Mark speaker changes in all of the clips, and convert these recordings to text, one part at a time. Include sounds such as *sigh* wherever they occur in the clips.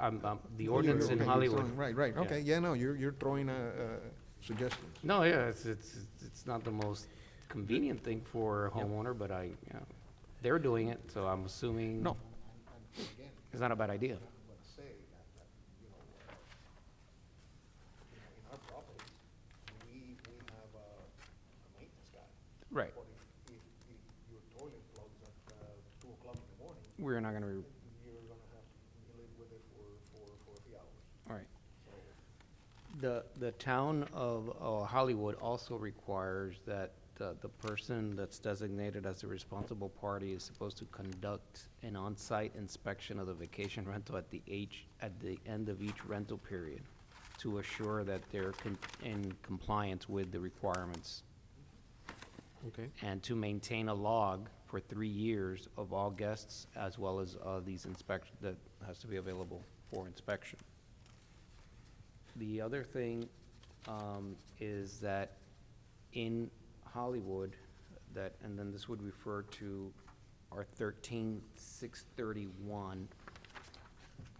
Speaker 1: um, um, the ordinance in
Speaker 2: Okay, you're
Speaker 1: Hollywood.
Speaker 2: throwing- Right, right,
Speaker 1: Yeah.
Speaker 2: okay, yeah, no, you're, you're throwing a, a suggestion.
Speaker 1: No, yeah, it's, it's, it's not the most convenient thing for a homeowner, but I, you know, they're doing it, so I'm assuming.
Speaker 2: No.
Speaker 1: It's not a bad idea.
Speaker 3: say that, that, you know, uh, you know, in our properties, we, we have a a maintenance guy.
Speaker 1: Right.
Speaker 3: But if, if, if your toilet plugs at, uh, two o'clock in the morning,
Speaker 1: We're not gonna, re-
Speaker 3: you're gonna have to live with it for, for, for a few hours.
Speaker 1: all right.
Speaker 3: So,
Speaker 1: The, the town of uh, Hollywood also requires that uh, the person that's designated as the responsible party is supposed to conduct an on-site inspection of the vacation rental at the age, at the end of each rental period to assure that they're con- in compliance with the requirements
Speaker 4: Okay.
Speaker 1: and to maintain a log for three years of all guests as well as uh, these inspection, that has to be available for inspection. The other thing um, is that in Hollywood, that, and then this would refer to our thirteen six thirty-one,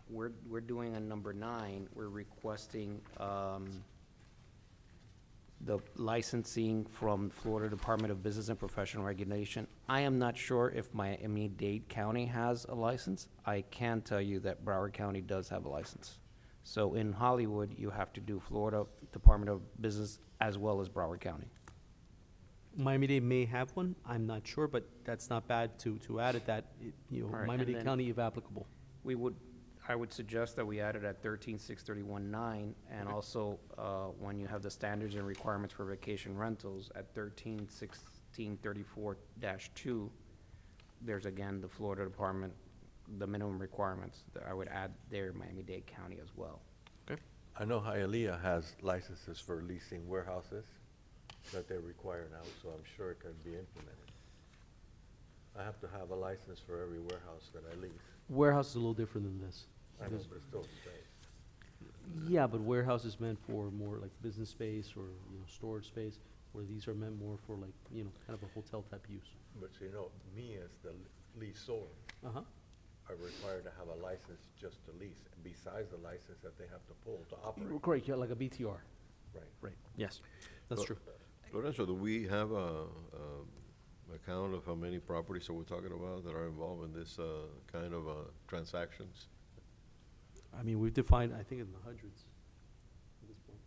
Speaker 1: we're, we're doing a number nine, we're requesting um, the licensing from Florida Department of Business and Professional Regulation. I am not sure if Miami-Dade County has a license. I can tell you that Broward County does have a license. So in Hollywood, you have to do Florida Department of Business as well as Broward County.
Speaker 4: Miami-Dade may have one, I'm not sure, but that's not bad to, to add it that, it- you
Speaker 1: All right,
Speaker 4: know,
Speaker 1: and
Speaker 4: Miami-Dade
Speaker 1: then-
Speaker 4: County if applicable.
Speaker 1: We would, I would suggest that we add it at thirteen six thirty-one nine, and also, uh, when you have the standards and requirements for vacation rentals at thirteen sixteen thirty-four dash two, there's again the Florida Department, the minimum requirements that I would add there, Miami-Dade County as well.
Speaker 4: Okay.
Speaker 5: I know Hialeah has licenses for leasing warehouses that they require now, so I'm sure it can be implemented. I have to have a license for every warehouse that I lease.
Speaker 4: Warehouse is a little different than this.
Speaker 5: I know,
Speaker 4: This-
Speaker 5: but it's still the same.
Speaker 4: Yeah, but warehouse is meant for more like business space or, you know, storage space, where these are meant more for like, you know, kind of a hotel type use.
Speaker 5: But you know, me as the leaseor
Speaker 4: Uh-huh.
Speaker 5: are required to have a license just to lease, besides the license that they have to pull to operate.
Speaker 4: Correct, yeah, like a BTR,
Speaker 5: Right.
Speaker 4: right, yes, that's
Speaker 6: Well,
Speaker 4: true.
Speaker 6: Lorenzo, do we have a, a account of how many properties that we're talking about that are involved in this, uh, kind of, uh, transactions?
Speaker 4: I mean, we've defined, I think in the hundreds at this point.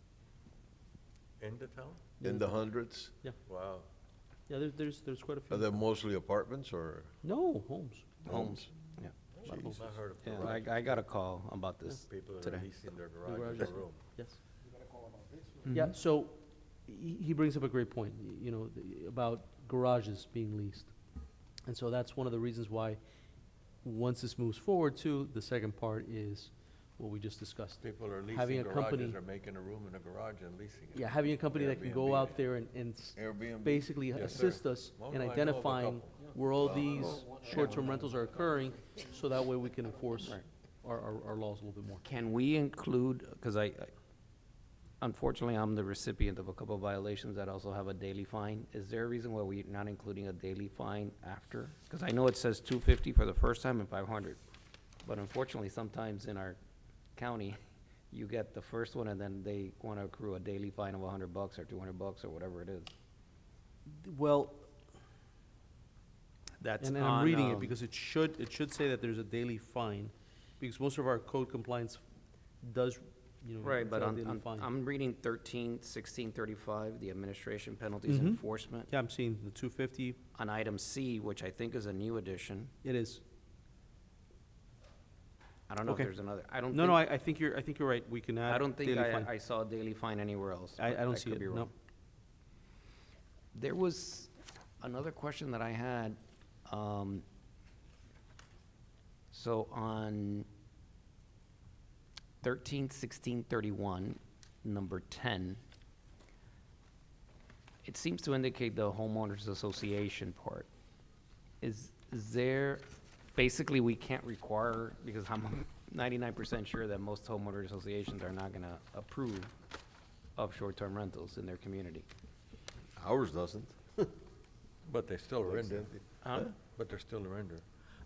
Speaker 5: In the town?
Speaker 6: In the hundreds?
Speaker 5: Wow.
Speaker 4: Yeah, there's, there's, there's quite a few.
Speaker 6: Are they mostly apartments or
Speaker 4: No, homes.
Speaker 6: homes?
Speaker 1: Yeah.
Speaker 4: Lot of homes.
Speaker 5: I heard of
Speaker 1: Yeah,
Speaker 5: garage,
Speaker 1: I, I got a call about this
Speaker 5: people that are
Speaker 1: today.
Speaker 5: leasing their garage as a
Speaker 4: Garages.
Speaker 5: room.
Speaker 4: Yes.
Speaker 3: you gotta call about this.
Speaker 4: Yeah,
Speaker 1: Mm-hmm.
Speaker 4: so he he brings up a great point, y- you know, th- about garages being leased. And so that's one of the reasons why, once this moves forward too, the second part is what we just discussed.
Speaker 5: People are
Speaker 4: Having
Speaker 5: leasing
Speaker 4: a company-
Speaker 5: garages, are making a room in a garage and leasing it.
Speaker 4: Yeah, having a company that can go
Speaker 5: Airbnb.
Speaker 4: out there and, and s-
Speaker 6: Airbnb?
Speaker 4: basically
Speaker 5: Yes,
Speaker 4: assist
Speaker 5: sir.
Speaker 4: us
Speaker 5: Well, I
Speaker 4: in
Speaker 5: know of a
Speaker 4: identifying
Speaker 5: couple.
Speaker 4: where all these short-term rentals are occurring, so that way we can enforce our, our, our laws a little bit more.
Speaker 1: Can we include, because I, I- unfortunately, I'm the recipient of a couple of violations that also have a daily fine. Is there a reason why we're not including a daily fine after? Because I know it says two fifty for the first time and five hundred. But unfortunately, sometimes in our county, *laughs* you get the first one and then they want to accrue a daily fine of hundred bucks or two hundred bucks or whatever it is.
Speaker 4: Well,
Speaker 1: That's um,
Speaker 4: And and I'm reading it because it should, it should say that there's a daily fine, because most of our code compliance does, you know.
Speaker 1: Right, but
Speaker 4: entail
Speaker 1: I'm,
Speaker 4: daily
Speaker 1: I'm-
Speaker 4: fine.
Speaker 1: I'm reading thirteen, sixteen, thirty-five, the administration penalties
Speaker 4: Mhm.
Speaker 1: enforcement.
Speaker 4: Yeah, I'm seeing the two fifty,
Speaker 1: On item C, which I think is a new addition,
Speaker 4: it is.
Speaker 1: I don't know if
Speaker 4: Okay.
Speaker 1: there's another, I don't
Speaker 4: No, no,
Speaker 1: think,
Speaker 4: I, I think you're, I think you're right, we can add.
Speaker 1: I don't think
Speaker 4: daily
Speaker 1: I,
Speaker 4: fine.
Speaker 1: I saw a daily fine anywhere else.
Speaker 4: I, I
Speaker 1: but
Speaker 4: don't
Speaker 1: that
Speaker 4: see
Speaker 1: could
Speaker 4: it,
Speaker 1: be
Speaker 4: no.
Speaker 1: wrong. There was another question that I had, um, so on thirteen sixteen thirty-one, number ten, it seems to indicate the homeowners association part. Is, is there, basically, we can't require, because I'm ninety-nine percent sure that most homeowner associations are not gonna approve of short-term rentals in their community.
Speaker 6: Ours doesn't.
Speaker 5: But they still render.
Speaker 6: Exempted.
Speaker 1: Huh?
Speaker 5: But they're still a render.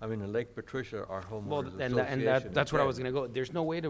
Speaker 5: I mean, in Lake Patricia, our
Speaker 1: Well,
Speaker 5: homeowners
Speaker 1: and, tha- and that,
Speaker 5: association
Speaker 1: that's where I was
Speaker 5: again,
Speaker 1: gonna go. There's no way to